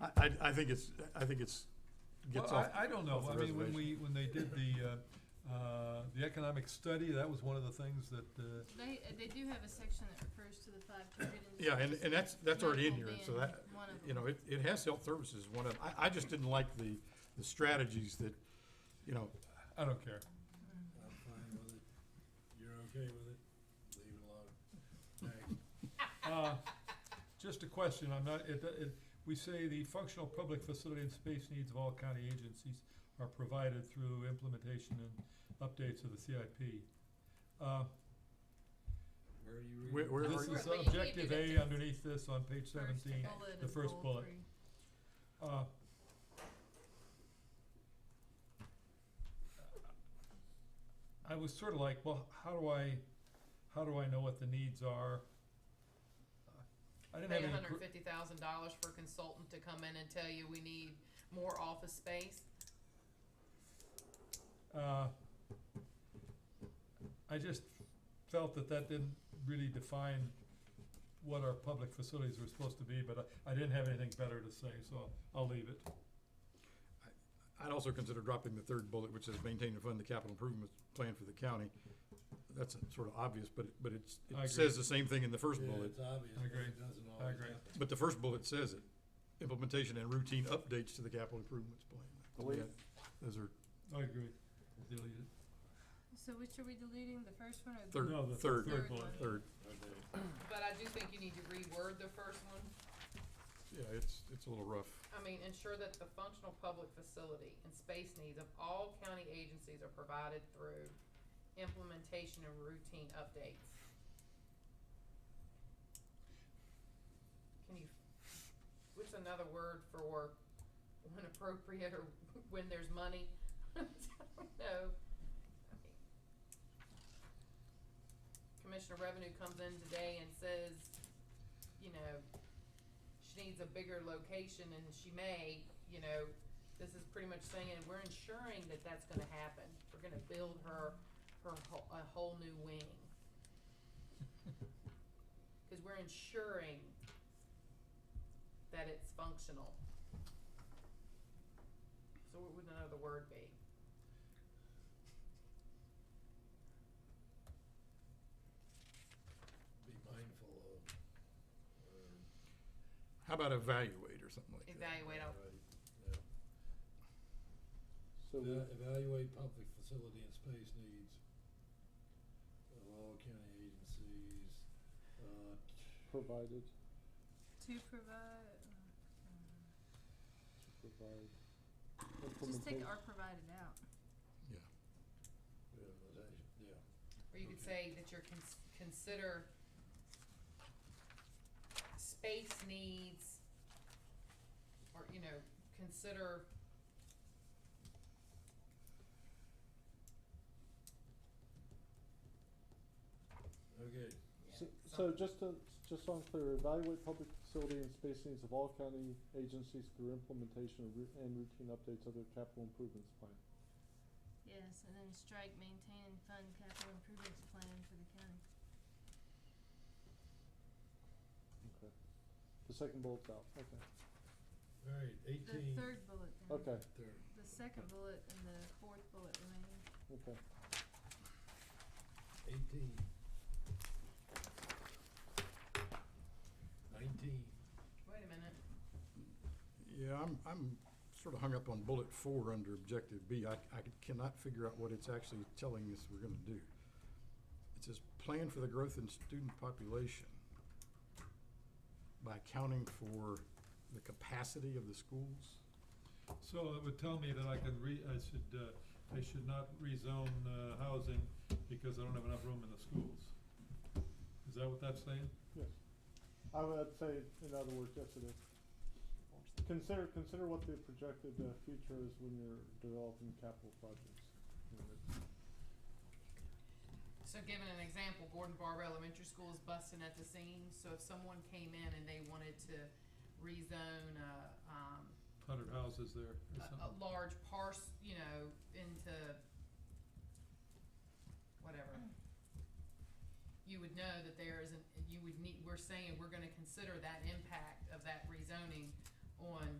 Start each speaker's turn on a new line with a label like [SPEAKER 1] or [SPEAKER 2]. [SPEAKER 1] I, I, I think it's, I think it's, gets
[SPEAKER 2] Well,
[SPEAKER 1] off.
[SPEAKER 2] I, I don't know,
[SPEAKER 1] off the
[SPEAKER 2] I mean, when
[SPEAKER 1] reservation.
[SPEAKER 2] we, when they did the, uh, uh, the economic study, that was one of the things that, uh,
[SPEAKER 3] They, uh, they do have a section that refers to the five communities.
[SPEAKER 1] Yeah, and, and that's, that's already in here,
[SPEAKER 3] Medical
[SPEAKER 1] and so
[SPEAKER 3] being
[SPEAKER 1] that,
[SPEAKER 3] one of
[SPEAKER 1] you know, it, it has health services, one of, I, I just didn't like the, the strategies that, you know,
[SPEAKER 2] I don't care.
[SPEAKER 4] I'm fine with it. You're okay with it? Leave it alone. Thanks.
[SPEAKER 2] Uh, Just a question, I'm not, it, it, we say the functional public facility and space needs of all county agencies are provided through implementation and updates of the CIP. Uh,
[SPEAKER 4] Where are you
[SPEAKER 1] Where-
[SPEAKER 4] reading?
[SPEAKER 1] where-
[SPEAKER 2] this
[SPEAKER 3] We're-
[SPEAKER 2] is
[SPEAKER 3] we- we
[SPEAKER 2] objective
[SPEAKER 3] do the
[SPEAKER 2] A
[SPEAKER 3] first-
[SPEAKER 2] underneath this on page seventeen,
[SPEAKER 3] bullet
[SPEAKER 2] the
[SPEAKER 3] of
[SPEAKER 2] first
[SPEAKER 3] goal
[SPEAKER 2] bullet.
[SPEAKER 3] three.
[SPEAKER 2] uh. I was sort of like, well, how do I, how do I know what the needs are? I didn't have
[SPEAKER 5] pay
[SPEAKER 2] any.
[SPEAKER 5] hundred
[SPEAKER 2] gr-
[SPEAKER 5] and fifty thousand dollars for a consultant to come in and tell you we need more office space.
[SPEAKER 2] Uh, I just felt that that didn't really define what our public facilities were supposed to be, but I, I didn't have anything better to say, so I'll leave it.
[SPEAKER 1] I'd also consider dropping the third bullet, which says maintain and fund the capital improvement plan for the county. That's sort of obvious, but, it- but it's, it
[SPEAKER 2] I agree.
[SPEAKER 1] says the same thing in the first
[SPEAKER 4] Yeah,
[SPEAKER 1] bullet,
[SPEAKER 4] It's obvious,
[SPEAKER 2] I
[SPEAKER 4] but
[SPEAKER 2] agree.
[SPEAKER 4] it doesn't always
[SPEAKER 2] agree.
[SPEAKER 4] happen.
[SPEAKER 1] but the first bullet says it. Implementation and routine updates to the capital improvements plan. To me,
[SPEAKER 6] Delete.
[SPEAKER 1] Those are
[SPEAKER 2] I agree. Delete it.
[SPEAKER 3] So which are we deleting, the first one or the?
[SPEAKER 1] Third-
[SPEAKER 2] No, the
[SPEAKER 1] third.
[SPEAKER 2] third
[SPEAKER 3] Third
[SPEAKER 2] bullet.
[SPEAKER 3] one.
[SPEAKER 1] third,
[SPEAKER 5] But I do think you need to reword the first one.
[SPEAKER 1] yeah, it's, it's a little rough.
[SPEAKER 5] I mean, ensure that the functional public facility and space needs of all county agencies are provided through implementation and routine updates. Can you, what's another word for when appropriate or when there's money? I don't know. I mean, Commissioner Revenue comes in today and says, you know, she needs a bigger location and she may, you know, this is pretty much saying we're ensuring that that's gonna happen. We're gonna build her, her whole, a whole new wing. Cause we're ensuring that it's functional. So what would another word be?
[SPEAKER 4] Be mindful of. uh, or-
[SPEAKER 1] How about evaluate or something like that?
[SPEAKER 5] Evaluate out,
[SPEAKER 4] Right, yeah.
[SPEAKER 6] So we-
[SPEAKER 4] Eva- Evaluate public facility and space needs of all county agencies, uh,
[SPEAKER 6] provided,
[SPEAKER 3] To provide,
[SPEAKER 6] to provide.
[SPEAKER 3] just take
[SPEAKER 6] implementa-
[SPEAKER 3] are provided out.
[SPEAKER 4] yeah, that- yeah.
[SPEAKER 5] or you could
[SPEAKER 4] Okay.
[SPEAKER 5] say that you're cons- consider space needs, or, you know, consider
[SPEAKER 4] Okay,
[SPEAKER 5] Yeah,
[SPEAKER 6] So- So
[SPEAKER 5] some-
[SPEAKER 6] just to, just so I'm clear, evaluate public facility and space needs of all county agencies through implementation of ru- and routine updates of their capital improvements plan.
[SPEAKER 3] Yes, and then strike maintain and fund capital improvements plan for the county.
[SPEAKER 6] Okay. The second bullet's out, okay,
[SPEAKER 4] all right,
[SPEAKER 3] The
[SPEAKER 4] eighteen,
[SPEAKER 3] third bullet then.
[SPEAKER 6] okay,
[SPEAKER 4] third,
[SPEAKER 3] The second bullet and the fourth bullet remaining.
[SPEAKER 6] okay.
[SPEAKER 4] eighteen. Nineteen.
[SPEAKER 5] Wait a minute.
[SPEAKER 1] Yeah, I'm, I'm sort of hung up on bullet four under objective B. I, I cannot figure out what it's actually telling us we're gonna do. It says, plan for the growth in student population by accounting for the capacity of the schools.
[SPEAKER 2] So it would tell me that I could re, I should, uh, I should not rezone, uh, housing because I don't have enough room in the schools. Is that what that's saying?
[SPEAKER 6] Yes. I would say, in other words, yes it is. Consider, consider what the projected uh, future is when you're developing capital projects. You know, it's-
[SPEAKER 5] So giving an example, Gordon Barber Elementary School is busting at the seams, so if someone came in and they wanted to rezone a, um,
[SPEAKER 2] Hundred houses there
[SPEAKER 5] a,
[SPEAKER 2] or
[SPEAKER 5] a
[SPEAKER 2] something?
[SPEAKER 5] large parcel, you know, into whatever, you would know that there isn't, you would need, we're saying, we're gonna consider that impact of that rezoning on